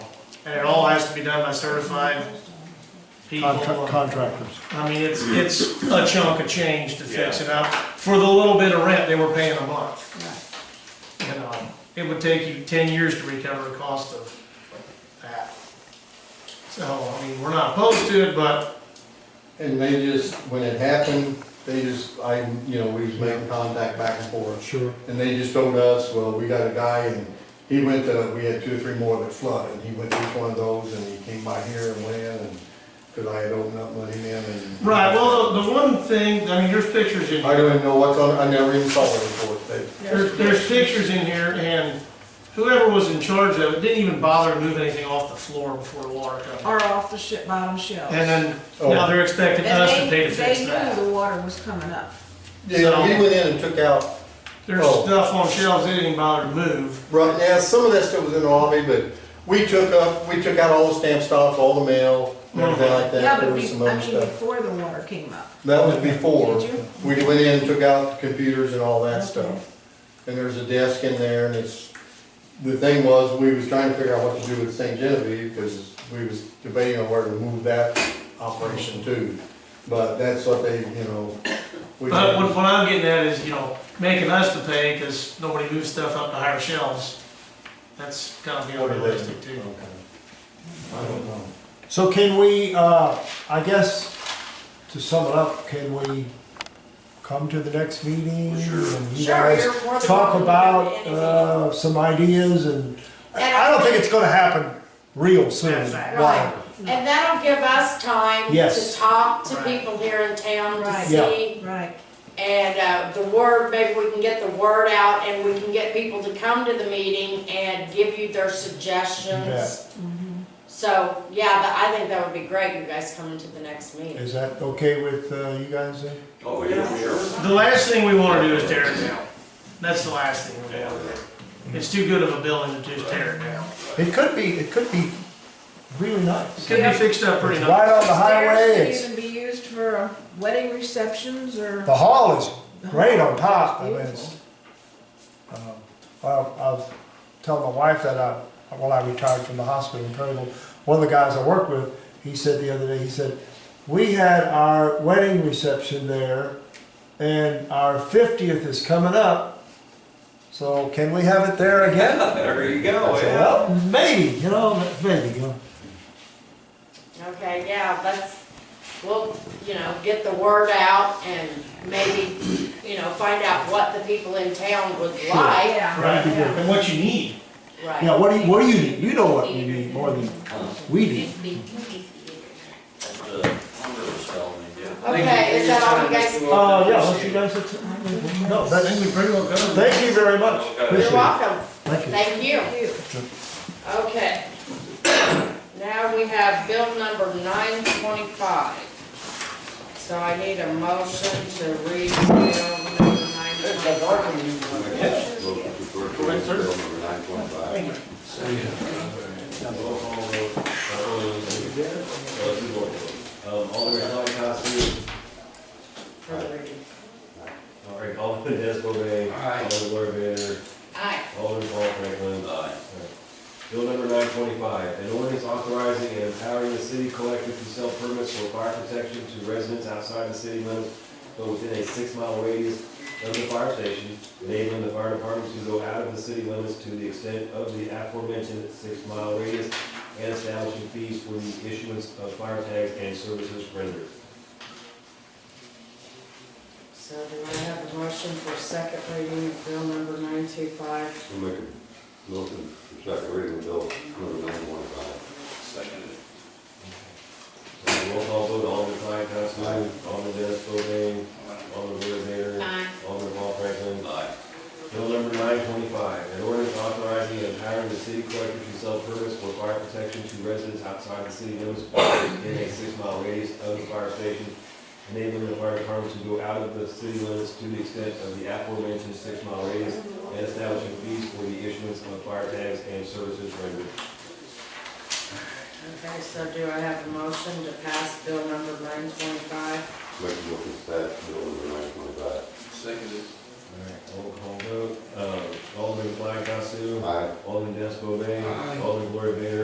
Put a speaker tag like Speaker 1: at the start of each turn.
Speaker 1: and it all has to be done by certified people.
Speaker 2: Contra- Contractors.
Speaker 1: I mean, it's, it's a chunk of change to fix it up, for the little bit of rent they were paying a month. You know, it would take you ten years to recover the cost of that. So, I mean, we're not opposed to it, but
Speaker 3: And they just, when it happened, they just, I, you know, we was making contact back and forth.
Speaker 2: Sure.
Speaker 3: And they just told us, well, we got a guy and he went to, we had two or three more that flooded. And he went to each one of those and he came by here and went and, cause I had opened up, let him in and.
Speaker 1: Right, well, the the one thing, I mean, there's pictures in,
Speaker 3: I don't even know what's on, I never even saw the report. They,
Speaker 1: there's, there's pictures in here, and whoever was in charge of it didn't even bother to move anything off the floor before the water come.
Speaker 4: Or off the shit bottom shelf.
Speaker 1: And then,
Speaker 3: Oh.
Speaker 1: now they're expecting
Speaker 4: And
Speaker 1: us to
Speaker 4: they-
Speaker 1: pay to fix
Speaker 4: They
Speaker 1: that.
Speaker 4: knew the water was coming up.
Speaker 3: yeah, he went in and took out
Speaker 1: There's
Speaker 3: Oh.
Speaker 1: stuff on shelves they didn't bother to move.
Speaker 3: Right, now, some of that stuff was in the army, but we took up, we took out all the stamp stocks, all the mail, and everything
Speaker 1: Uh-huh.
Speaker 3: like
Speaker 4: Yeah,
Speaker 3: that,
Speaker 4: but
Speaker 3: there
Speaker 4: be-
Speaker 3: was some
Speaker 4: I
Speaker 3: other
Speaker 4: mean,
Speaker 3: stuff.
Speaker 4: before the water came up.
Speaker 3: That was before,
Speaker 4: Did you?
Speaker 3: we went in and took out the computers and all that stuff. And there's a desk in there, and it's, the thing was, we was trying to figure out what to do with St. Genevieve, because we was debating on where to move that operation to. But that's what they, you know, we,
Speaker 1: But what, what I'm getting at is, you know, making us to pay because nobody moves stuff up to higher shelves. That's kind of the
Speaker 3: What do they-
Speaker 1: unrealistic too.
Speaker 3: Okay. I don't know.
Speaker 2: So can we, uh, I guess, to sum it up, can we come to the next meeting? and you
Speaker 4: Sure,
Speaker 2: guys
Speaker 4: you're more than welcome
Speaker 2: Talk
Speaker 4: to
Speaker 2: about,
Speaker 4: do anything.
Speaker 2: uh, some ideas and,
Speaker 5: And
Speaker 2: I I don't think it's gonna happen real soon.
Speaker 1: That's right.
Speaker 5: Right, and that'll give us time to
Speaker 2: Yes.
Speaker 5: talk to
Speaker 1: Right.
Speaker 5: people here in town to
Speaker 4: Right.
Speaker 2: Yeah.
Speaker 5: see.
Speaker 4: Right.
Speaker 5: And, uh, the word, maybe we can get the word out and we can get people to come to the meeting and give you their
Speaker 2: bet.
Speaker 5: suggestions. So, yeah, but I think that would be great, you guys coming to the next meeting.
Speaker 2: Is that okay with, uh, you guys then?
Speaker 6: Oh, yeah, we are.
Speaker 1: The last thing we want to do is tear it down. That's the last thing we want to do. It's too good of a building to just tear it down.
Speaker 2: It could be, it could be really
Speaker 1: It
Speaker 2: nice.
Speaker 1: could be fixed up pretty
Speaker 2: It's
Speaker 1: nice.
Speaker 2: right on the highway,
Speaker 4: Stairs
Speaker 2: it's,
Speaker 4: can even be used for uh, wedding receptions or.
Speaker 2: the hall is great on top, I mean,
Speaker 4: Beautiful.
Speaker 2: it's, um, well, I was telling my wife that I, well, I retired from the hospital in Trumbull, one of the guys I work with, he said the other day, he said, we had our wedding reception there, and our fiftieth is coming up, so can we have it there again?
Speaker 6: There you
Speaker 2: I
Speaker 6: go,
Speaker 2: said,
Speaker 6: yeah.
Speaker 2: well, maybe, you know, maybe, you know.
Speaker 5: Okay, yeah, let's, we'll, you know, get the word out and maybe, you know, find out what the people in town would like.
Speaker 4: Yeah.
Speaker 1: Right, and what you need.
Speaker 5: Right.
Speaker 2: Yeah, what do you, what do you need? You know what you need more than we do.
Speaker 6: That's the Hunger was telling me, yeah.
Speaker 5: Okay, is that all you guys
Speaker 2: Uh, yeah, what you guys, have- no,
Speaker 1: I
Speaker 2: that's,
Speaker 1: think we pretty well covered.
Speaker 2: thank you very much. Appreciate
Speaker 5: You're
Speaker 2: it.
Speaker 5: welcome,
Speaker 2: Thank you.
Speaker 5: thank you.
Speaker 4: Thank you.
Speaker 5: Okay. Now we have bill number nine twenty-five. So I need a motion to read bill number nine twenty-five.
Speaker 6: Uh,
Speaker 7: Um, Alderman Holly
Speaker 5: for the reading.
Speaker 7: all right, Alderman Desbové.
Speaker 6: Aye.
Speaker 7: Alderman Laura Bader,
Speaker 5: Aye.
Speaker 7: Alderman Paul Franklin.
Speaker 6: Aye.
Speaker 7: Bill number nine twenty-five, an ordinance authorizing and empowering the city collector to sell permits for fire protection to residents outside the city limits, but within a six-mile radius of the fire station, enabling the fire department to go out of the city limits to the extent of the aforementioned six-mile radius, and establishing fees for the issuance of fire tags and services rendered.
Speaker 5: So do I have a motion for second reading of bill number nine two five?
Speaker 8: I'll make a motion for second reading of bill number nine one five.
Speaker 6: uh, Seconded.
Speaker 7: Roll call vote, Alderman Clyde Constable, Alderman Dennis Bovee, Alderman Blair Vader,
Speaker 5: Aye.
Speaker 7: Alderman Paul Franklin.
Speaker 6: Aye.
Speaker 7: Bill number nine twenty-five, an ordinance authorizing and empowering the city collector to sell permits for fire protection to residents outside the city limits in a six-mile radius of the fire station, enabling the fire department to go out of the city limits to the extent of the aforementioned six-mile radius, and establishing fees for the issuance of fire tags and services rendered.
Speaker 5: Okay, so do I have a motion to pass bill number nine twenty-five?
Speaker 8: Make a motion for that bill number nine twenty-five.
Speaker 6: Seconded.
Speaker 7: Roll call vote, uh, Alderman Flag Castle,
Speaker 8: Aye.
Speaker 7: Alderman Des Bovee, Alderman Gloria Bader,